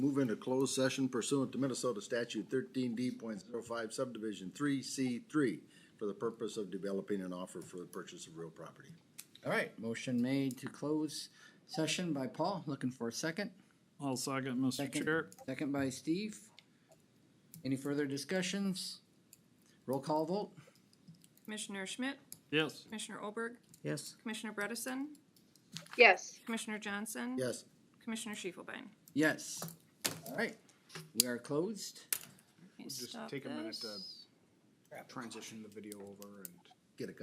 move into closed session pursuant to Minnesota statute thirteen d05 subdivision three C three for the purpose of developing an offer for the purchase of real property. All right, motion made to close session by Paul, looking for a second. I'll second, Mr. Second. Chair. Second by Steve. Any further discussions? Roll call vote? Commissioner Schmidt, Yes. Commissioner Olberg, yes. Commissioner Bredesen, yes. Commissioner Johnson. Yes. Commissioner Schiefelbein. Yes. All right, we are closed. Just take a minute to- Transition the video over and.